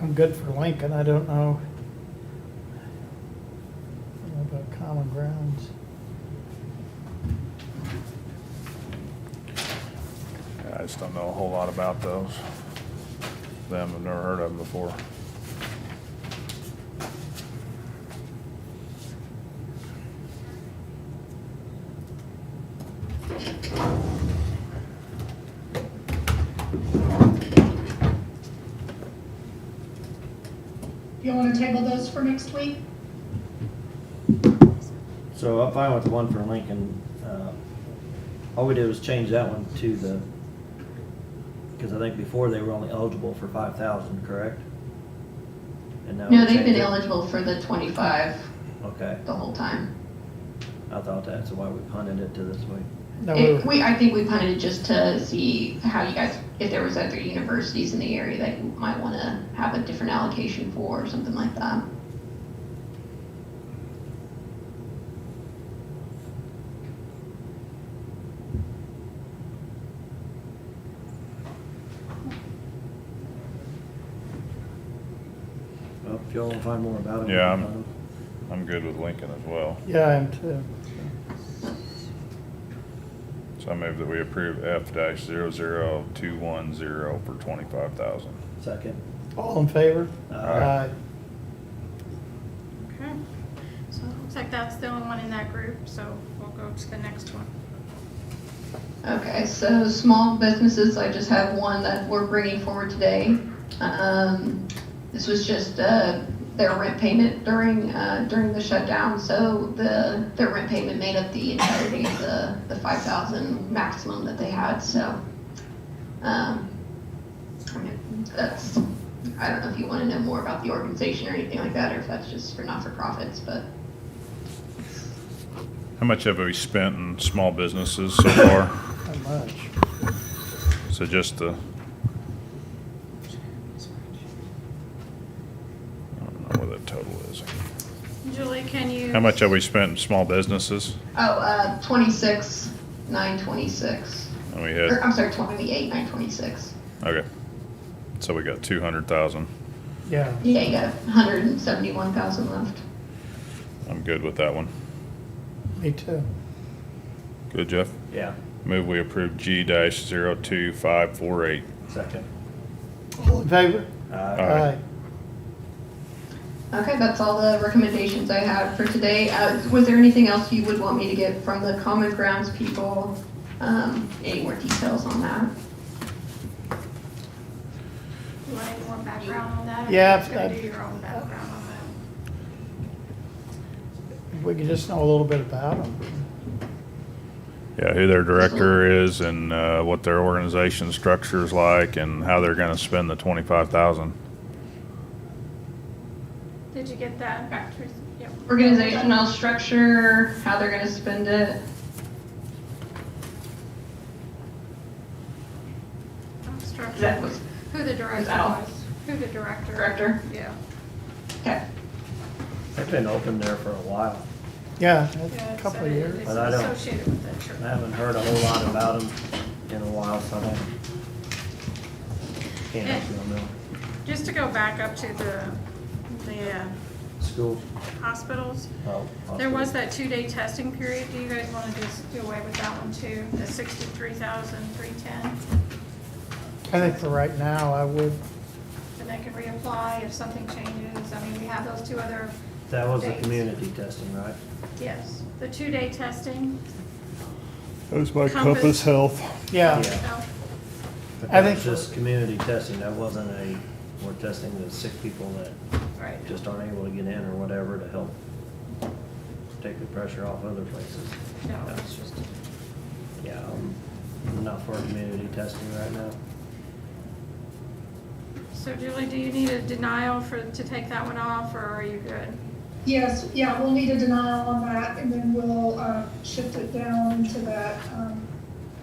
I'm good for Lincoln, I don't know. I don't know About common grounds. I just don't know a whole lot about those. Them, I've never heard of them before. You want to table those for next week? So I'm fine with the one for Lincoln. Uh, All we did was change that one to the, because I think before they were only eligible for five thousand, correct? And now No, we they've changed been it- eligible for the twenty-five Okay, the whole time. I thought that's why we punted it to this week. No, we It, were- we, I think we punted it just to see how you guys, if there was other universities in the area that you might wanna have a different allocation for or something like that. Well, Oh, if y'all want to find more about it. we Yeah, can I'm- find I'm good with Lincoln as well. Yeah, I am too. So I move that we approve F dash zero zero two one zero for twenty-five thousand. out. Second. All in favor? Aye. Okay, so it looks like that's the only one in that group, so we'll go to the next one. Okay, so small businesses, I just have one that we're bringing forward today. Um, this was just, uh, their rent payment during, uh, during the shutdown, so the, their rent payment made up the entirety of the, the five thousand maximum that they had, so. Um, I mean, that's, I don't know if you wanna know more about the organization or anything like that, or if that's just for not-for-profits, but How much have we spent in small businesses so far? Aye, not much. So just the. I don't know where that total is. Julie, can you? How much have we spent in small businesses? Oh, uh, twenty-six, nine twenty-six. And we Or, had, I'm sorry, twenty-eight, nine twenty-six. okay. So we got two hundred thousand. Yeah, Yeah, you got hundred and seventy-one thousand left. I'm good with that one. me too. Good, Jeff? Yeah, Move we approve G dash zero two five four eight. second. All in favor? Uh, Aye. Okay, that's all the recommendations I have for today. Uh, was there anything else you would want me to get from the common grounds people? Um, any more details on that? You want any more background on that? or Yeah, you just gonna I've- Do your own background on that. If we could just know a little bit about them. Yeah, who their director is and, uh, what their organization structure is like and how they're gonna spend the twenty-five thousand. Did you get that? Teresa? Yep. Organizational structure, how they're gonna spend it. Um, Structure. That was, Who the was director Al. was, who the director. Director. Yeah. okay. They've been open there for a while. Yeah, Yeah, a it couple said of it- years. It's But I don't- associated with the church. I haven't heard a whole lot about them in a while, so I don't- can't answer them now. Just to go back up to the, the uh, Schools? hospitals, Oh, There hospitals. was that two-day testing period, do you guys want to just do away with that one too, the sixty-three thousand, three ten? I think for right now, I would, And they can reapply if something changes, I mean, we have those two other, That was the Days. community testing, right? yes, the two-day testing. That was by Compass. Compass Health. yeah, Oh, But I that was think- just community testing, that wasn't a, we're testing the sick people that Right, just aren't able to get in or whatever to help take the pressure off other places. no, it's just, Yeah, I'm- I'm not for community testing right now. so Julie, do you need a denial for, to take that one off, or are you good? Yes, yeah, we'll need a denial on that, and then we'll uh, shift it down to that um,